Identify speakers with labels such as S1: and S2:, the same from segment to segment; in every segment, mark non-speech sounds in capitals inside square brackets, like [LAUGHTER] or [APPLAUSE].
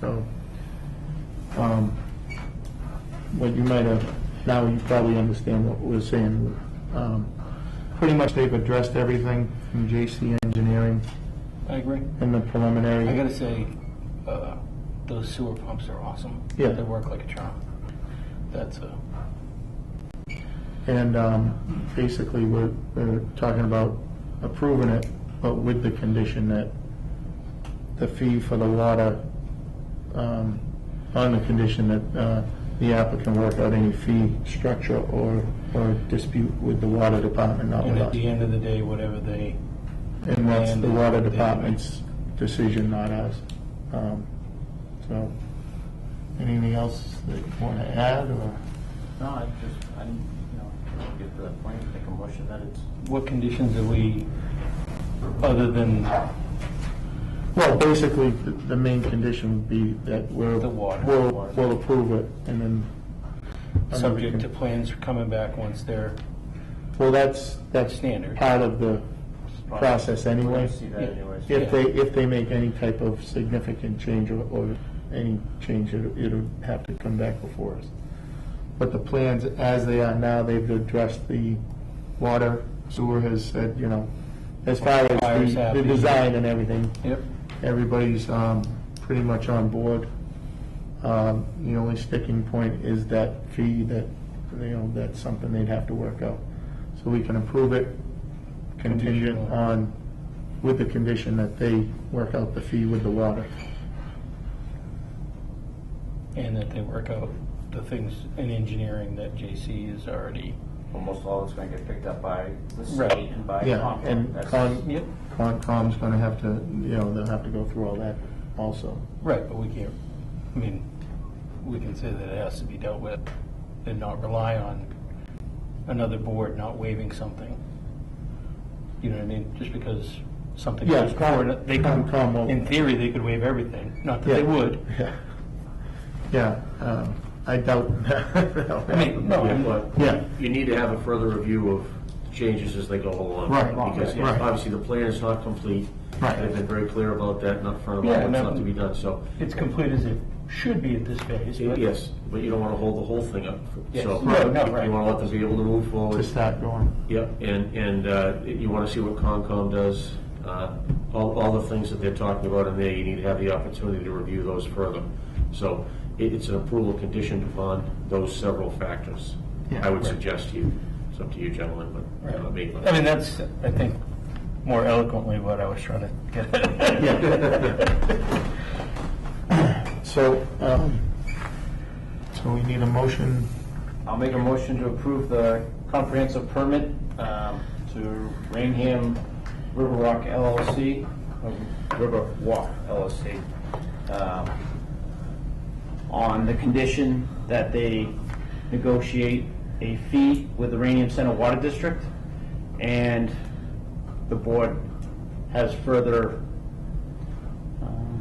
S1: So, um, what you might have, now you probably understand what we're saying. Um, Pretty much they've addressed everything from J.C. Engineering
S2: I agree.
S1: and the preliminary.
S2: I gotta say, uh, those sewer pumps are awesome.
S1: Yeah.
S2: They work like a charm. That's uh, a,
S1: And um, basically, we're, we're talking about approving it, but with the condition that the fee for the water, um, on the condition that uh, the applicant work out any fee structure or, or dispute with the water department, not
S2: and
S1: with
S2: at
S1: us.
S2: the end of the day, whatever they,
S1: And that's the
S2: and-
S1: water department's decision, not ours. Um, So, anything else that you want to add, or?
S3: No, I just, I didn't, you know, get to that point, make a motion that it's.
S2: what conditions are we, other than
S1: Well, basically, the the main condition would be that we're...
S2: The water.
S1: We'll, we'll approve it, and then... and then we
S2: subject to
S1: can-
S2: plans coming back once they're,
S1: Well, that's, that's...
S2: Standard.
S1: Part of the process
S3: We're
S1: anyway.
S3: gonna see that anyways.
S1: If they, if they make any type of significant change or, or any change, it'll, it'll have to come back before us. But the plans, as they are now, they've addressed the water, sewer has said, you know, as far as
S2: Fire's
S1: the, the
S2: happy.
S1: design and everything,
S2: yep,
S1: everybody's um, pretty much on board. Um, The only sticking point is that fee that, you know, that's something they'd have to work out. So we can approve it contingent
S2: Conditional.
S1: on, with the condition that they work out the fee with the water.
S2: and that they work out the things in engineering that JC is already.
S3: Almost all it's gonna get picked up by the
S2: Right.
S3: state and by.
S1: Yeah,
S3: Concom.
S1: and
S3: That's-
S1: Con,
S2: Yep.
S1: Concom's gonna have to, you know, they'll have to go through all that also.
S2: Right, but we can't, I mean, we can say that it has to be dealt with and not rely on another board not waiving something. You know what I mean? Just because something
S1: Yeah,
S2: goes forward, they could,
S1: Concom won't-
S2: in theory, they could waive everything. Not that they
S1: Yeah.
S2: would.
S1: Yeah. Yeah, um, I doubt.
S2: I mean, no,
S4: Yeah,
S2: I'm-
S4: but
S1: Yeah.
S4: you need to have a further review of changes as they go along.
S1: Right,
S4: Because
S1: right, right.
S4: obviously, the plan is not complete.
S1: Right.
S4: They've been very clear about that, not front of
S2: Yeah,
S4: all what's
S2: no.
S4: left to be done, so,
S2: it's complete as it should be at this phase, but.
S4: yes, but you don't want to hold the whole thing up.
S2: Yes,
S4: So
S2: no, no, right.
S4: You want to let them be able to move
S1: To
S4: forward.
S1: start going.
S4: Yep, and, and uh, you want to see what Concom does, uh, all, all the things that they're talking about in there, you need to have the opportunity to review those further. So it, it's an approval conditioned upon those several factors,
S1: Yeah.
S4: I would suggest to you. It's up to you gentlemen, but not me.
S2: I mean, that's, I think, more eloquently what I was trying to get at.
S1: [LAUGHS] So, um, so we need a motion,
S3: I'll make a motion to approve the comprehensive permit um, to Rainham River Rock LLC, uh, River Walk LLC, um, on the condition that they negotiate a fee with the Rainham Center Water District, and the board has further um,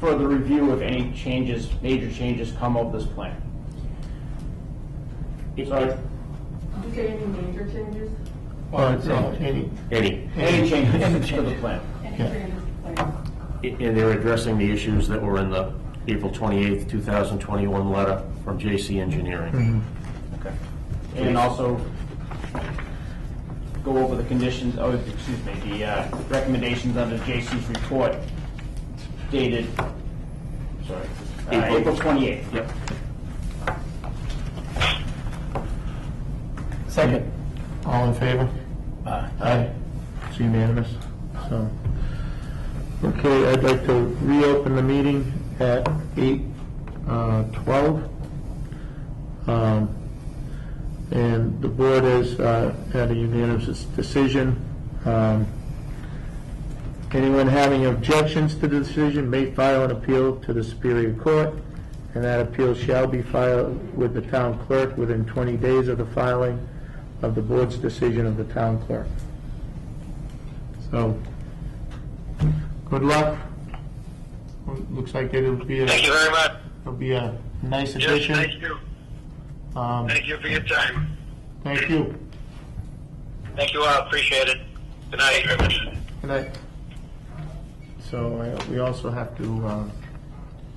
S3: further review of any changes, major changes come of this plan. Sorry.
S5: Did you say any major changes?
S1: or any,
S4: Any,
S3: Any changes to the plan?
S5: Any
S1: Yeah.
S5: changes to plan?
S4: and they're addressing the issues that were in the April 28th, 2021 letter from J.C. Engineering.
S3: Okay. And also go over the conditions, oh, excuse me, the uh, recommendations under J.C.'s report dated, sorry, uh,
S4: April.
S3: April 28th.
S4: Yep.
S1: second, all in favor? Aye. It's unanimous, so. Okay, I'd like to reopen the meeting at eight, uh, twelve. Um, And the board has, uh, had a unanimous decision. Um, Anyone having objections to the decision may file an appeal to the Superior Court, and that appeal shall be filed with the town clerk within 20 days of the filing of the board's decision of the town clerk. So, good luck. Looks like it'll be, a
S6: Thank you very much.
S1: it'll be a nice
S6: Yes,
S1: addition.
S6: thank you.
S1: Um,
S6: Thank you for your time.
S1: Thank you.
S6: Thank you all. Appreciate it. Good night.
S1: Good night. So I- we also have to um,